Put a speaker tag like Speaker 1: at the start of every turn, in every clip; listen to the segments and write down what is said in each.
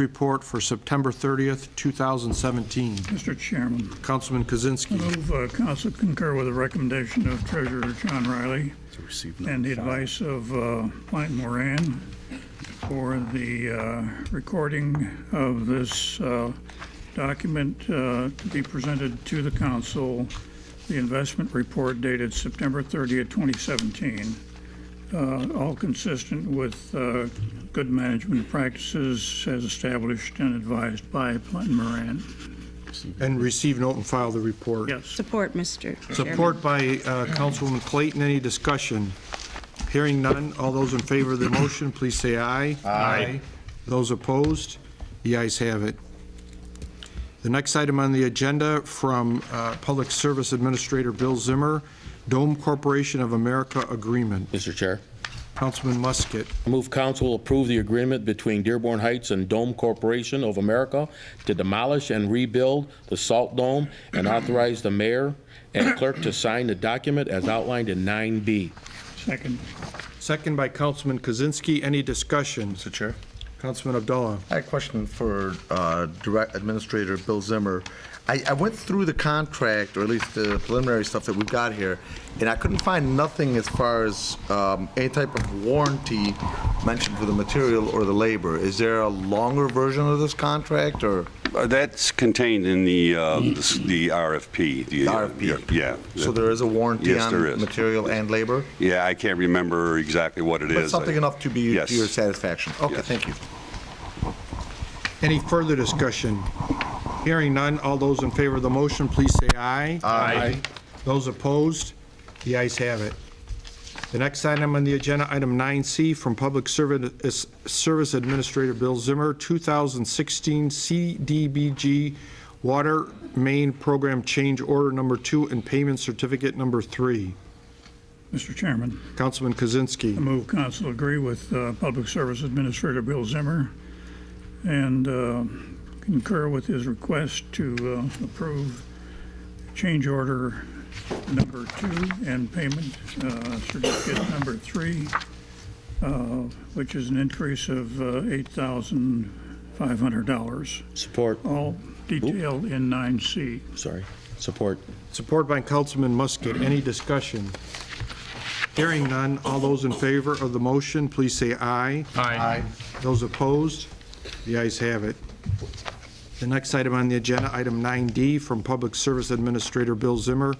Speaker 1: report for September 30th, 2017.
Speaker 2: Mr. Chairman,
Speaker 1: Councilman Kozinski.
Speaker 2: move uh, council concur with the recommendation of Treasurer John Riley
Speaker 3: to receive
Speaker 2: and the
Speaker 3: number five.
Speaker 2: advice of uh, Plant Moran for the uh, recording of this uh, document uh, to be presented to the council, the investment report dated September 30th, 2017, uh, all consistent with uh, good management practices as established and advised by Plant Moran.
Speaker 1: And receive, note, and file the report.
Speaker 2: Yes.
Speaker 4: Support, Mr. Chairman.
Speaker 1: Support by uh, Councilwoman Clayton. Any discussion? Hearing none. All those in favor of the motion, please say aye. Aye. Those opposed? The ayes have it. The next item on the agenda from uh, Public Service Administrator Bill Zimmer, Dome Corporation of America Agreement.
Speaker 5: Mr. Chair,
Speaker 1: Councilman Musket.
Speaker 5: I move council approve the agreement between Dearborn Heights and Dome Corporation of America to demolish and rebuild the Salt Dome and authorize the mayor and clerk to sign the document as outlined in 9B.
Speaker 2: Second.
Speaker 1: Second by Councilman Kozinski. Any discussion?
Speaker 3: Mr. Chair,
Speaker 1: Councilman Abdullah.
Speaker 3: I had a question for uh, Direct Administrator Bill Zimmer. I, I went through the contract, or at least the preliminary stuff that we've got here, and I couldn't find nothing as far as um, any type of warranty mentioned for the material or the labor. Is there a longer version of this contract, or?
Speaker 6: Uh, That's contained in the, uh, s- the RFP. the, uh,
Speaker 3: RFP.
Speaker 6: Yeah.
Speaker 3: So there is a warranty
Speaker 6: Yes, there
Speaker 3: on
Speaker 6: is.
Speaker 3: material and labor?
Speaker 6: Yeah, I can't remember exactly what it is.
Speaker 3: But something enough to be
Speaker 6: Yes.
Speaker 3: to your satisfaction? Okay,
Speaker 6: Yes.
Speaker 3: thank you.
Speaker 1: Any further discussion? Hearing none, all those in favor of the motion, please say aye. Aye. Those opposed, the ayes have it. The next item on the agenda, item 9C, from Public Service Service Administrator Bill Zimmer, 2016 CDBG Water Main Program Change Order Number 2 and Payment Certificate Number 3.
Speaker 2: Mr. Chairman.
Speaker 1: Councilman
Speaker 2: I
Speaker 1: Kozinski.
Speaker 2: move council agree with uh, Public Service Administrator Bill Zimmer and uh, concur with his request to uh, approve change order number two and payment uh, certificate number three, uh, which is an increase of uh, $8,500,
Speaker 5: Support,
Speaker 2: all detailed in 9C.
Speaker 5: sorry, support.
Speaker 1: Support by Councilman Musket. Any discussion? Hearing none, all those in favor of the motion, please say aye. Aye. Those opposed? The ayes have it. The next item on the agenda, item 9D, from Public Service Administrator Bill Zimmer,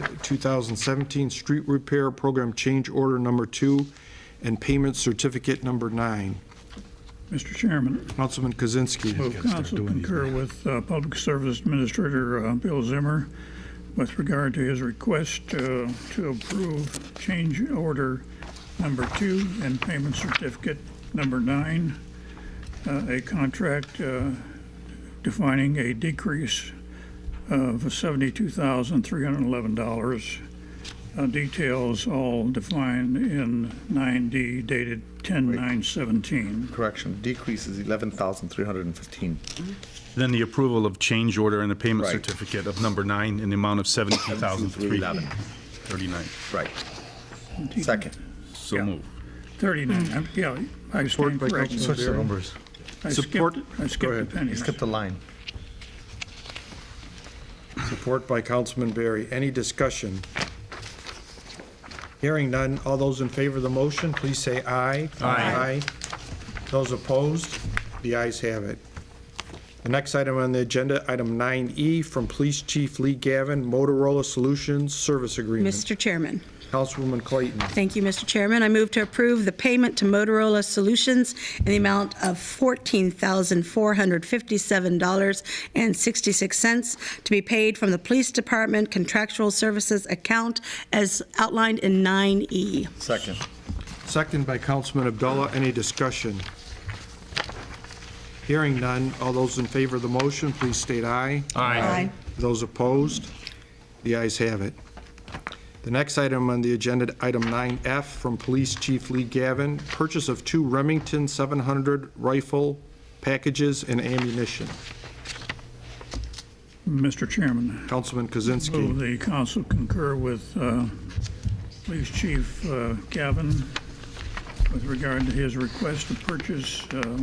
Speaker 1: 2016-2017 Street Repair Program Change Order Number 2 and Payment Certificate Number 9.
Speaker 2: Mr. Chairman.
Speaker 1: Councilman Kozinski.
Speaker 2: Move council concur with uh, Public Service Administrator uh, Bill Zimmer with regard to his request uh, to approve change order number two and payment certificate number nine, uh, a contract uh, defining a decrease of $72,311. Uh, Details all defined in 9D dated 10/9/17.
Speaker 3: Correction, decrease is 11,315.
Speaker 7: Then the approval of change order and the payment
Speaker 3: Right.
Speaker 7: certificate of number nine in the amount of 17,339.
Speaker 3: Right. Second.
Speaker 7: So moved.
Speaker 2: 39, I'm- yeah, I
Speaker 1: Support Hmm.
Speaker 2: stand
Speaker 1: by
Speaker 2: corrected.
Speaker 1: Councilman Barry.
Speaker 3: numbers.
Speaker 2: I
Speaker 1: Support-
Speaker 2: skipped, I skipped the
Speaker 3: You
Speaker 2: pennies.
Speaker 3: skipped a line.
Speaker 1: Support by Councilman Barry. Any discussion? Hearing none. All those in favor of the motion, please say aye. Aye. Those opposed? The ayes have it. The next item on the agenda, item 9E, from Police Chief Lee Gavin, Motorola Solutions Service Agreement.
Speaker 4: Mr. Chairman.
Speaker 1: Councilwoman Clayton.
Speaker 4: Thank you, Mr. Chairman. I move to approve the payment to Motorola Solutions in the amount of $14,457.66 to be paid from the Police Department Contractual Services account as outlined in E. 9E.
Speaker 3: Second.
Speaker 1: Second by Councilman Abdullah. Any discussion? Hearing none. All those in favor of the motion, please state aye.
Speaker 4: Aye.
Speaker 1: Those opposed? The ayes have it. The next item on the agenda, item 9F, from Police Chief Lee Gavin, purchase of two Remington 700 rifle packages and ammunition.
Speaker 2: Mr. Chairman,
Speaker 1: Councilman
Speaker 2: move
Speaker 1: Kozinski.
Speaker 2: the council concur with uh, Police Chief uh, Gavin with regard to his request to purchase uh,